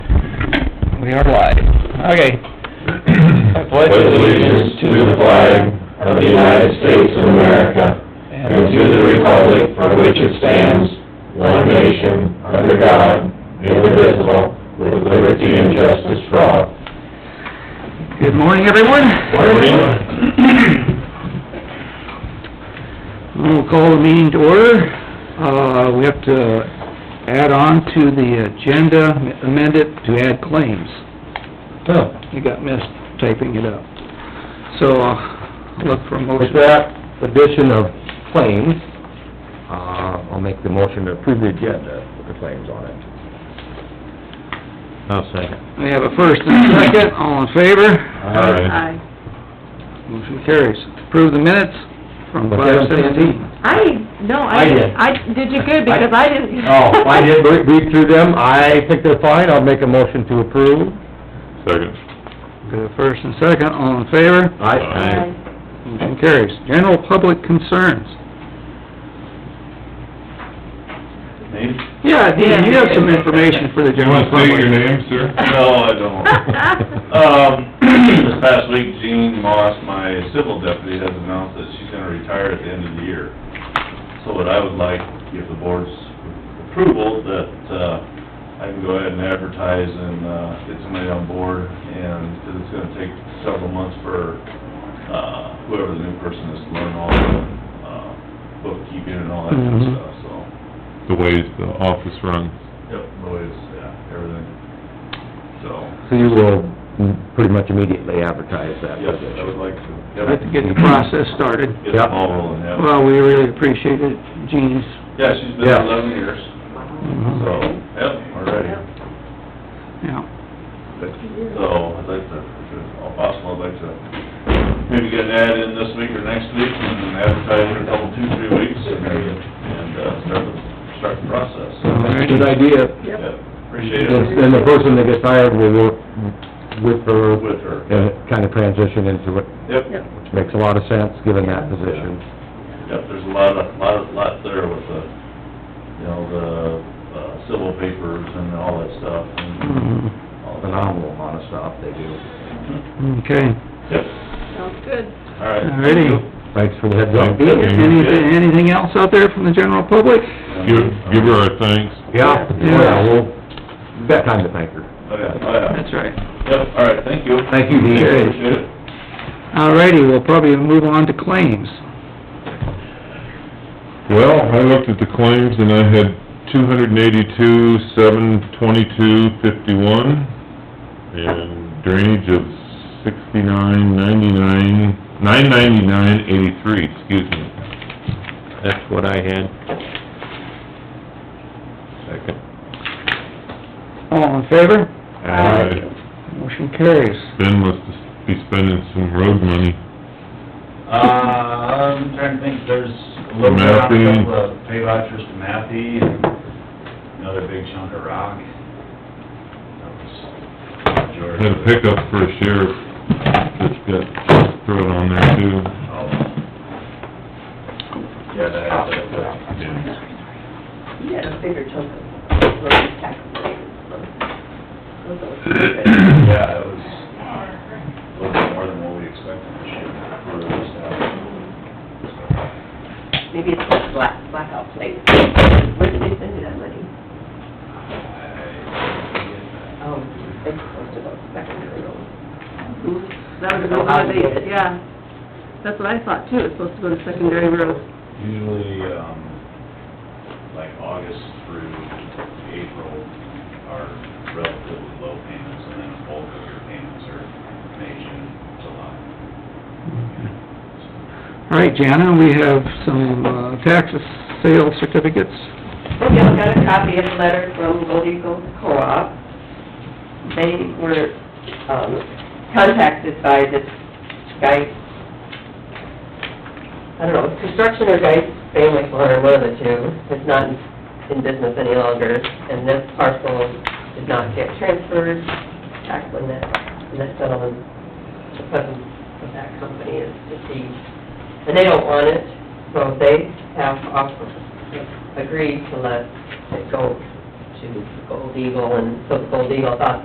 we are live. Okay. pledge allegiance to the flag of the United States of America and to the republic for which it stands, one nation, under God, indivisible, with liberty and justice for all. Good morning, everyone. Morning. We'll call the meeting to order. Uh, we have to add on to the agenda, amend it to add claims. So, You got missed typing it up. So, uh, look for a with motion. that addition of claims, uh, I'll make the motion to approve the agenda with the claims on it. I'll second. We have a first and a second, all in favor? Aye. Motion carries. Approve the minutes from Was that five on seventeen. I, no, I I, did. didn't- I did you good because I didn't. Oh, I did re- read through them, I think they're fine, I'll make a motion to approve. Second. Got a first and second, all in favor? Aye. Motion carries. General public concerns. Name? Yeah, Dean, you have some information for the You general want to state your public. name, sir? No, I don't. Um, this past week, Jean Moss, my civil deputy, has announced that she's gonna retire at the end of the year. So what I would like, if the board's approval, that, uh, I can go ahead and advertise and, uh, get somebody on board, and, because it's gonna take several months for, uh, whoever the new person is to learn all the, uh, bookkeeping and all that kind Mhm. of stuff, so. The way the office runs. Yep, noise, yeah, everything. So, So you will mm, pretty much immediately advertise that Yes, I would position? like to. Like to get the process started. Get the ball rolling, yeah. Well, we really appreciate it, Jean's. Yeah, she's been Yeah. there eleven years, so, Mhm. yep, already. Yeah. So, I'd like to, if it's all possible, I'd like to maybe get an ad in this week or next week and advertise in a couple, two, three weeks and, and, uh, start the, start the process. Alright. Good idea, Yep, Appreciate and it. and the person that gets hired will work with her With her. and kind of transition into it, Yep, Yep. which makes a lot of sense, given that position. yep, there's a lot of, lot, of- lot there with the, you know, the, uh, civil papers and all that stuff and Mhm. all that. Phenomenal amount of stuff they do. Okay. Yep, Sounds good. all right. Alrighty. Thanks for the heads up. Thank you. Anything, anything else out there from the general public? Give, give her our thanks. Yeah, Yeah. yeah, well, that time to thank her. Oh, yeah, oh, yeah. That's right. Yep, all right, thank you. Thank you, Dean. Appreciate it. Alrighty, we'll probably move on to claims. Well, I looked at the claims and I had two hundred and eighty-two, seven, twenty-two, fifty-one, and drainage of sixty-nine, ninety-nine, nine ninety-nine, eighty-three, excuse me. That's what I had. Second. All in favor? Aye. Motion carries. Ben must be spending some road money. Uh, I'm trying to think, there's a little bit on a couple of pay vouchers to Matthew and another big chunk of rock. That was George. Had a pickup for a sheriff, just got thrown on there Oh. too. Yeah, that, that, that. You had a bigger chunk of road tax. Those Yeah, it was a little bit more than what we expected this year. uh, for this stuff. are- Maybe it's like black, blackout plate. Where did they send you that money? I- Oh, it's supposed to go secondary road. That was Oh, what I they, did it. yeah. That's what I thought too, it's supposed to go to secondary roads. Usually, um, like August through April are relatively low payments, and then bulk of your payments are May, June, July. Alright, Jana, we have some, uh, tax sale certificates. I just got a copy of a letter from Gold Eagle Co-op. They were, um, contacted by this guy, I don't know, construction or guy's family farm, one of the two, is not in business any longer, and this parcel did not get transferred back when that, when that gentleman, the president of that company is deceased. And they don't want it, so they have offered, agreed to let it go to Gold Eagle, and so Gold Eagle thought